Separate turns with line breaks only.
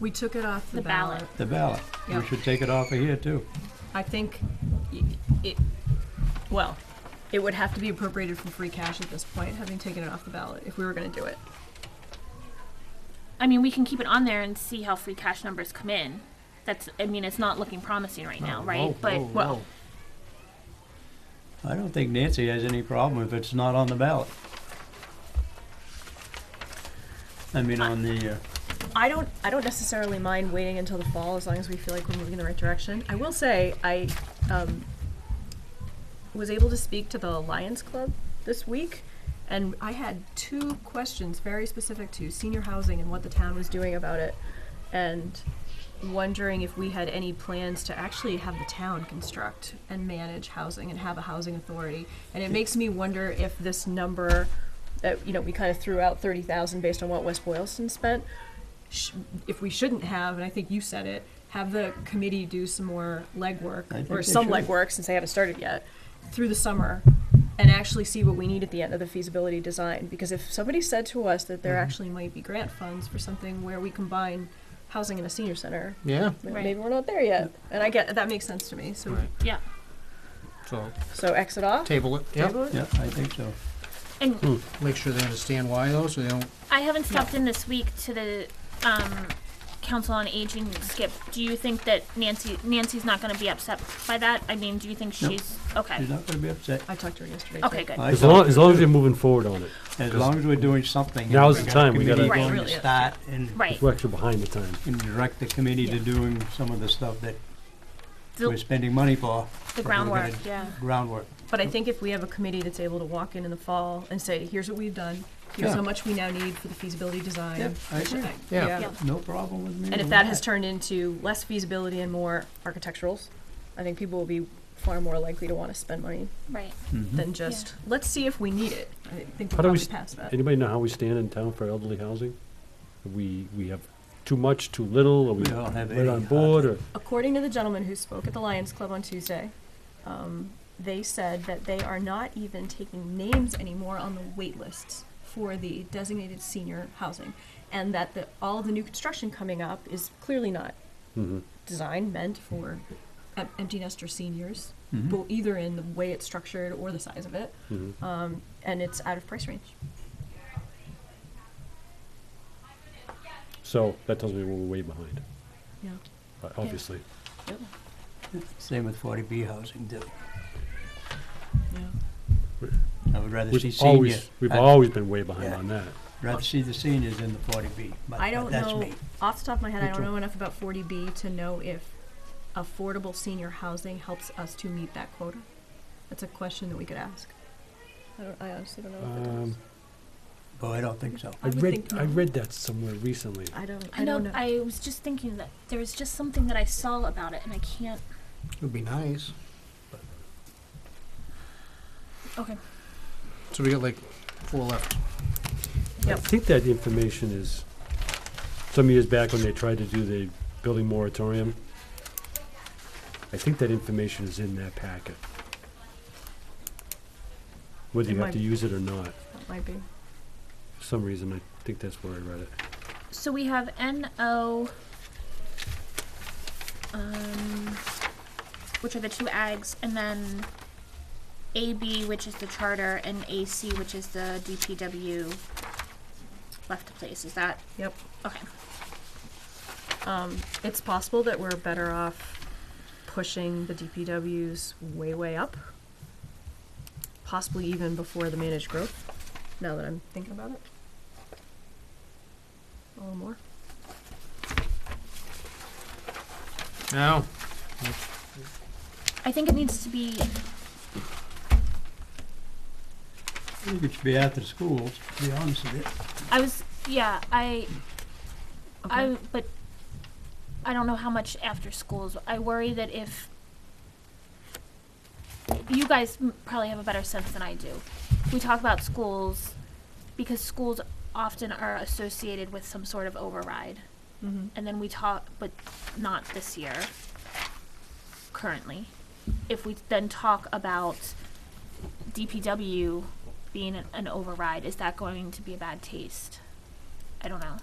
We took it off the
The ballot.
ballot.
the ballot.
Yeah.
We should take it off of here too.
I think y- it, well, it would have to be appropriated from free cash at this point, having taken it off the ballot, if we were gonna do it.
I mean, we can keep it on there and see how free cash numbers come in. That's, I mean, it's not looking promising right now, right?
Oh, Whoa,
But
whoa, whoa. I don't think Nancy has any problem if it's not on the ballot. I mean, on the, uh,
I don't, I don't necessarily mind waiting until the fall, as long as we feel like we're moving in the right direction. I will say, I, um, was able to speak to the Lions Club this week, and I had two questions very specific to senior housing and what the town was doing about it, and wondering if we had any plans to actually have the town construct and manage housing and have a housing authority. And it makes me wonder if this number that you know we kind of threw out thirty thousand based on what West Boylston spent, sh- if we shouldn't have, and I think you said it. Have the committee do some more
I
legwork
think
or
they
some
should.
legwork since they haven't started yet through the summer and actually see what we need at the end of the feasibility design. Because if somebody said to us that there
Mm-hmm.
actually might be grant funds for something where we combine housing and a senior center,
Yeah.
m-
Right.
maybe we're not there yet. And I get that makes sense to me. So
Right.
yeah,
So
so exit off.
table it. Yep.
table it.
yeah, I think so.
and
Make sure they understand why though, so they don't.
I haven't stepped in this week to the um, Council on Aging. Skip, do you think that Nancy Nancy's not going to be upset by that? I mean, do you think
No.
she's okay?
She's not gonna be upset.
I talked to her yesterday.
Okay,
too.
good.
I
As
thought-
long, as long as you're moving forward on it,
As long as we're doing something.
Now's the time, we
Committee
gotta- Right,
going
really,
to
yeah.
start and
right.
we're actually behind the time.
and direct the committee to
Yeah.
doing some of the stuff that we're
The,
spending money for.
the
but we're gonna
groundwork. Yeah.
Groundwork.
But I think if we have a committee that's able to walk in in the fall and say, here's what we've done, here's
Yeah.
how much we now need for the feasibility design.
Yeah, I
which
agree.
Yeah.
Yeah.
No problem with me.
And if
with
that has turned into less feasibility and more architecturals, I think people will be far more likely to want to spend money
Right.
Mhm.
than just, let's see if we need it. I think we're
How do we
probably
s-
past that.
Anybody know how we stand in town for elderly housing? We, we have too much, too little, or we
We don't have uh,
right on
any.
board, or,
According to the gentleman who spoke at the Lions Club on Tuesday, um, they said that they are not even taking names anymore on the wait lists for the designated senior housing, and that the, all the new construction coming up is clearly not
Mhm.
designed meant for em- empty nester seniors,
Mhm.
bo- either in the way it's structured or the size of it,
Mhm.
um, and it's out of price range.
so that tells me we're way behind,
Yeah.
uh, obviously.
Same with forty B housing too.
Yeah.
I would rather see
We've
seniors.
always, we've
I'd
always been way behind
Yeah.
on that.
Rather see the seniors in the forty B, but
I
but
don't
that's
know
me.
off the top of my head. I
Me
don't
too.
know enough about 40B to know if affordable senior housing helps us to meet that quota. That's a question that we could ask. I, don't, I honestly don't know. If it does.
Um,
Oh, I don't think so.
I
I
would
read,
think
I
not.
read that somewhere recently.
I don't. I
I know.
don't know.
I was just thinking that there was just something that I saw about it, and I can't.
It would be nice.
Okay.
So we got like four left.
I
Yep.
think that information is, some years back when they tried to do the building moratorium, I think that information is in that packet. Whether
It
you
might-
have to use it or not,
that might be.
for some reason, I think that's where I read it.
So we have NO, um, which are the two ags, and then AB, which is the charter, and AC, which is the DPW left to place. Is that
Yep.
okay?
Um, it's possible that we're better off pushing the DPWs way, way up. Possibly even before the managed growth. Now that I'm thinking about it. A little more.
No.
I think it needs to be
I think it should be after the schools, to be honest with you.
I was yeah, I
Okay.
I but I don't know how much after schools. I worry that if you guys m- probably have a better sense than I do. We talk about schools because schools often are associated with some sort of override.
Mhm.
And then we talk but not this year currently. If we then talk about DPW being an, an override, is that going to be a bad taste? I don't know.